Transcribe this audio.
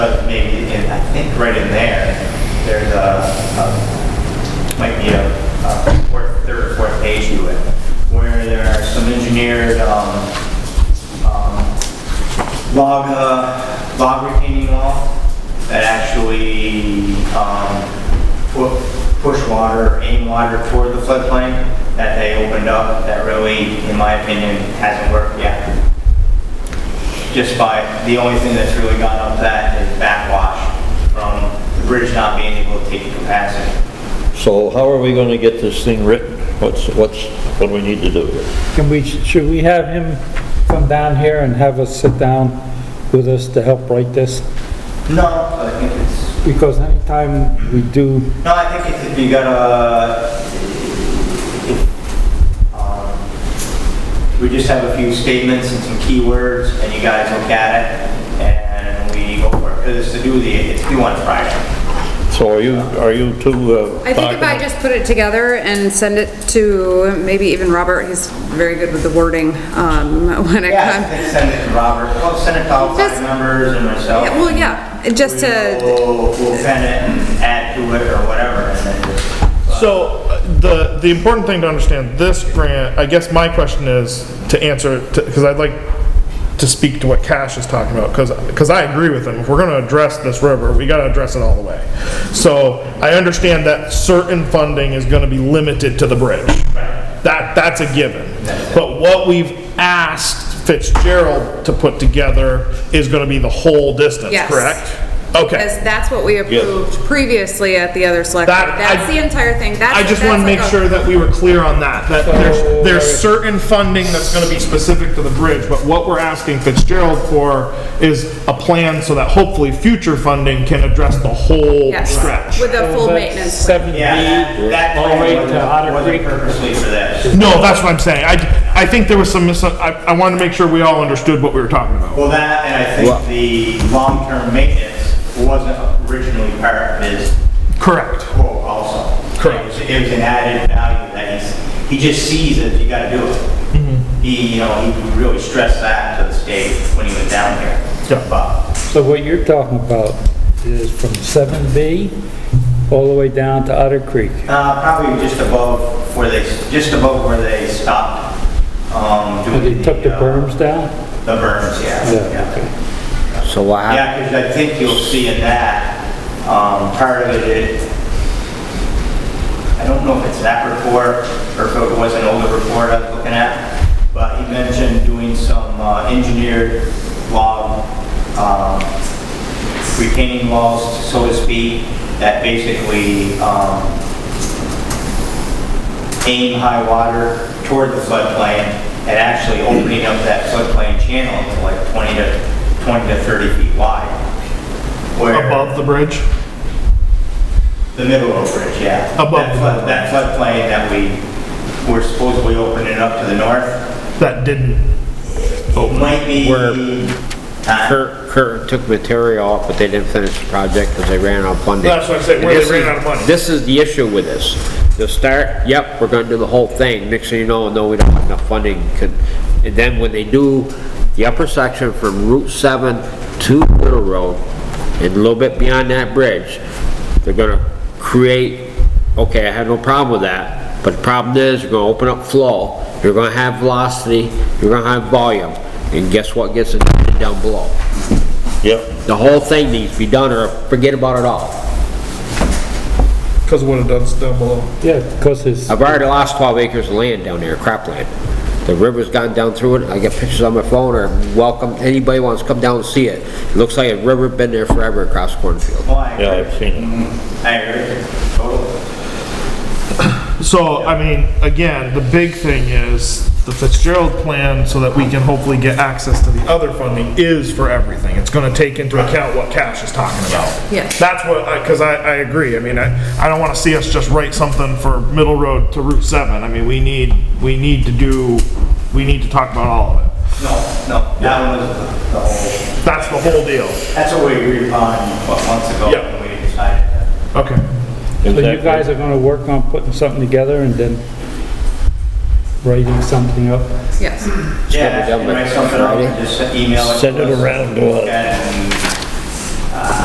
think right in there, there's a, a- might be a, a fourth, third or fourth page to it, where there are some engineered, um, um, log, uh, log retaining wall that actually, um, pu- push water, aim water toward the floodplain that they opened up, that really, in my opinion, hasn't worked yet just by, the only thing that's really gone up that is backwash from the bridge not being able to take the capacity. So how are we gonna get this thing written? What's, what's, what do we need to do here? Can we, should we have him come down here and have us sit down with us to help write this? No, I think it's, Because anytime we do, no, I think it's if you gotta, um, we just have a few statements and some keywords, and you guys look at it, and we go for it, because it's to do the, it's due on Friday. So are you, are you two, uh? I think if I talking- just put it together and send it to maybe even Robert, he's very good with the wording, um, when it Yeah, I comes. think send it to Robert, well, send it to all Just- five members and myself. Yeah, Well, yeah, just to, We'll, we'll pen it and add to it or whatever, and then just. So uh, the, the important thing to understand, this grant, I guess my question is to answer, because I'd like to speak to what Cash is talking about, because, I agree with him. If we're gonna address this river, we gotta address it all the way. So I understand that certain funding is gonna be limited to the bridge. That, that's a given. But what we've asked Fitzgerald to put together is gonna be the whole distance, Yes. correct? Okay. because that's what we approved previously at the other select. That- That's I- the entire thing. That's- I just that's want to like make a- sure that we were clear on that, that there's, there's certain funding that's going to be specific to the bridge, but what we're asking Fitzgerald for is a plan so that hopefully future funding can address the whole Yes, stretch. With a full that's maintenance. plan. seven Yeah, that- B, that all right to plan Otter wasn't Creek. purposely for this. No, that's what I'm saying. I, I think there was some mis, I, I wanted to make sure we all understood what we were talking about. Well, that, and I Well- think the long-term maintenance wasn't originally part of his Correct. quote also. Correct. It was- It was an added value that he's, he just sees it, you gotta do Mm-hmm. it. He, you know, he really stressed that to the state when he was down here. Yeah. But, So what you're talking about is from seven B all the way down to Otter Creek. uh, probably just above where they, just above where they stopped, um, And doing they the. took the uh, berms down? The berms, yeah. okay. So what hap- Yeah, because I think you'll see in that, um, part of it, it- I don't know if it's that report, or if it was an older report I was looking at, but he mentioned doing some uh, engineered log, um, retaining walls, so to speak, that basically, um, aim high water toward the floodplain, and actually opening up that floodplain channel to like 20 to, 20 to 30 feet wide. Where- Above the bridge? the middle of the bridge, yeah. Above That the flood- That floodplain that we were supposedly opening up to the north. That didn't. It might be, Where- uh, Kurt, Kurt took material off, but they didn't finish the project because they ran out of funding. That's what I said, where And they this ran is- out of money. This is the issue with this. They'll start, yep, we're gonna do the whole thing, next thing you know, no, we don't have enough funding. could- And then when they do the upper section from Route 7 to Little Road, and a little bit beyond that bridge, they're gonna create okay, I had no problem with that, but the problem is, you're gonna open up flow, you're gonna have velocity, you're gonna have volume, and guess what gets injected down below? Yep, The whole thing needs to be done, or forget about it all. Because of what it does down below. Yeah, because it's, I've already lost twelve acres of land down there, cropland. The river's gone down through it, I got pictures on my phone, or welcome, anybody wants to come down and see it. It looks like a river been there forever across cornfield. well, I yeah, agree. I've seen it. I agree, totally. So, I mean, again, the big thing is the Fitzgerald plan, so that we can hopefully get access to the other funding, is for everything. It's gonna take into account what Cash is talking about. Yes. That's what, I cause I, I agree. I mean, I, I don't wanna see us just write something for Middle Road to Route 7. I mean, we need, we need to do, we need to talk about all of it. No, no, that one was the whole, That's the whole deal. that's what we agreed upon, what, months ago, Yeah. when we decided that. Okay. so you Exactly. guys are gonna work on putting something together and then writing something up? Yes. Yeah, Just get it done and by write something up, Friday. and just send- email it. Send to it us, around to us. And